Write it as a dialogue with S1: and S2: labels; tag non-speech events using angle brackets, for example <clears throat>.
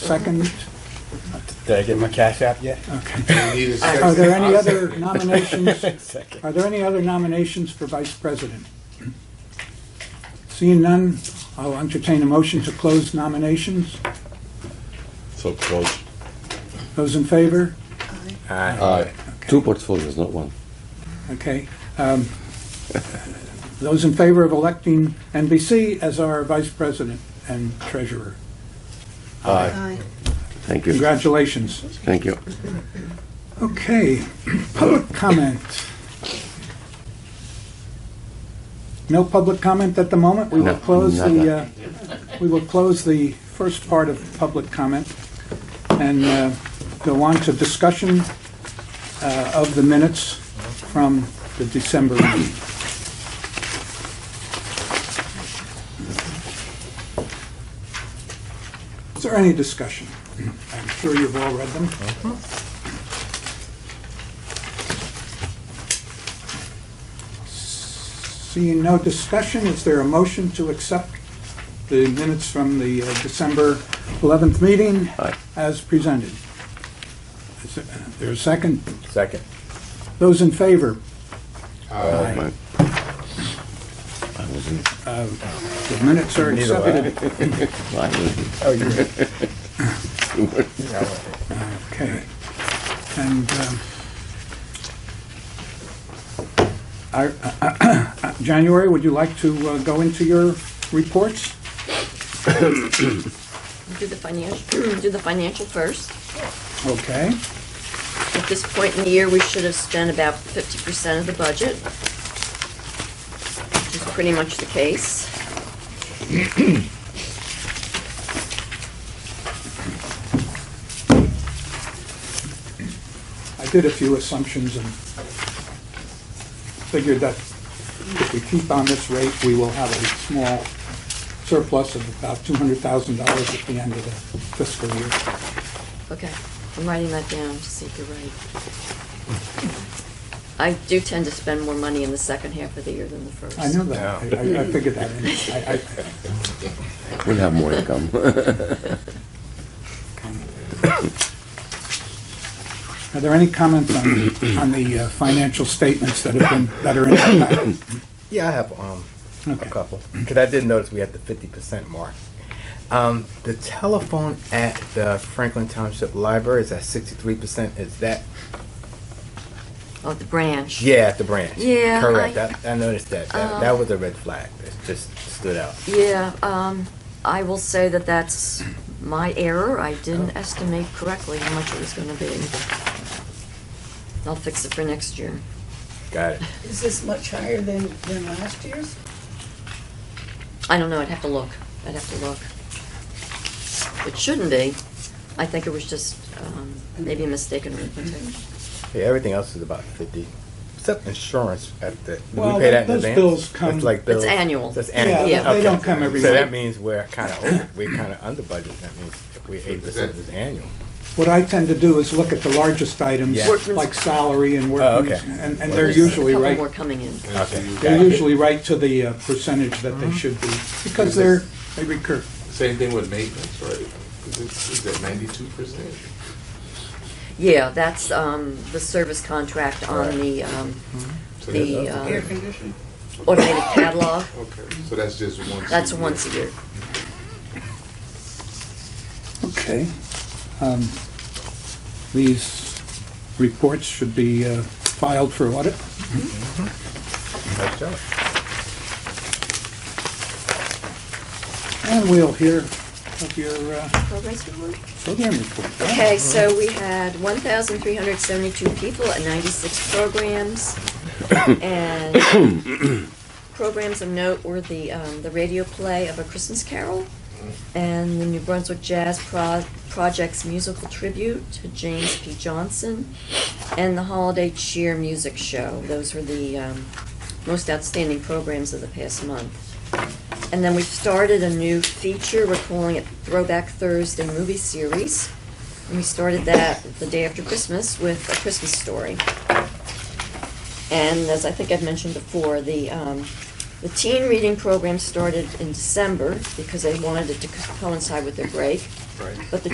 S1: second?
S2: Did I get my cash app yet?
S1: Okay.
S3: We need a
S1: Are there
S3: second.
S1: any other nominations?
S2: <laughs> Second.
S1: Are there any other nominations for vice president? Seeing none, I'll entertain a motion to close nominations.
S4: So close.
S1: Those in favor?
S2: Aye.
S4: Aye. Two portfolios, not one.
S1: Okay. um, Those in favor of electing NBC as our vice president and treasurer?
S5: Aye.
S4: Thank you.
S1: Congratulations.
S4: Thank you.
S1: Okay, public comment. No public comment at the moment. We will
S4: No,
S1: close the,
S4: nada.
S1: uh, we will close the first part of public comment and uh, go on to discussion uh, of the minutes from the December meeting. Is there any discussion? I'm sure you've all read them. Seeing no discussion, is there a motion to accept the minutes from the uh, December 11th meeting
S4: Aye.
S1: as presented? Is there- is there a second?
S2: Second.
S1: Those in favor?
S4: Aye. I will be.
S1: The minutes are
S2: Neither way.
S1: accepted.
S4: I will be.
S2: Oh, you're right.
S1: Okay. And um, I- uh, January, would you like to uh, go into your reports?
S5: Do the financial, <clears throat> do the financial first.
S1: Okay.
S5: At this point in the year, we should have spent about fifty percent of the budget, which is pretty much the case.
S1: I did a few assumptions and figured that if we keep on this rate, we will have a small surplus of about $200,000 at the end of the fiscal year.
S5: Okay, I'm writing that down to see if you're right. I do tend to spend more money in the second half of the year than the first.
S1: I know that. I- I I figured that. in. I- I-
S4: We'll have more income. <laughs>
S1: Are there any comments on, on the uh, financial statements that have been, that are in the packet?
S2: <laughs> Yeah, I have um, a
S1: Okay.
S2: couple, because I did notice we had the fifty percent mark. Um, the telephone at the Franklin Township Library is at sixty-three percent, is that,
S5: Oh, the branch.
S2: yeah, at the branch?
S5: Yeah,
S2: Correct,
S5: I- Oh.
S2: I, I noticed that, that, that was a red flag, it just stood out.
S5: Yeah, um, I will say that that's my error. I didn't
S1: Oh.
S5: estimate correctly how much it was gonna be. I'll fix it for next year.
S2: Got it,
S6: Is this much higher than, than last year's?
S5: I don't know, I'd have to look. I'd have to look. It shouldn't be. I think it was just, um, maybe a mistaken
S6: Mm-hmm.
S5: arithmetic.
S2: yeah, everything else is about fifty, except insurance at the, do
S1: Well,
S2: we pay that in
S1: those
S2: advance?
S1: bills come-
S2: That's like bills.
S5: It's annual.
S2: That's
S5: Yeah,
S2: annual.
S5: they
S2: Okay.
S1: don't come every
S2: So
S1: month.
S2: that means we're kinda over, we're kinda under budget, that means if we eight percent is annual.
S1: What I tend to do is look at the largest items,
S2: Yeah.
S5: Workman's-
S1: like salary and
S2: Oh, okay.
S1: workman's, and, and they're
S5: There's a
S1: usually
S5: couple
S1: right,
S5: more coming in.
S2: Okay.
S1: they're usually right to the uh, percentage that
S5: Mm-hmm.
S1: they should be, because they're, they recur.
S3: Same thing with maintenance, right? 'Cause it's, it's at ninety-two percent.
S5: Yeah, that's, um, the service contract on the, um,
S1: Mm-hmm.
S5: the
S6: Air
S5: uh,
S6: conditioning?
S5: automated catalog.
S3: Okay, so that's just once.
S5: That's
S3: a year.
S5: once a year.
S1: Okay. Um, These reports should be uh, filed for audit.
S2: Nice job.
S1: And we'll hear of your uh,
S5: Progress report?
S1: program report.
S5: Okay, so we had one thousand three hundred seventy-two people at ninety-six programs. And programs of note were the, um, the radio play of A Christmas Carol and the New Brunswick Jazz Pro- Project's musical tribute to James P. Johnson and the Holiday Cheer Music Show. Those were the, um, most outstanding programs of the past month. And then we've started a new feature, we're calling it Throwback Thursday Movie Series. And we started that the day after Christmas with A Christmas Story. And as I think I've mentioned before, the, um, the teen reading program started in December because they wanted it to co- coincide with their break.
S3: Right.
S5: But the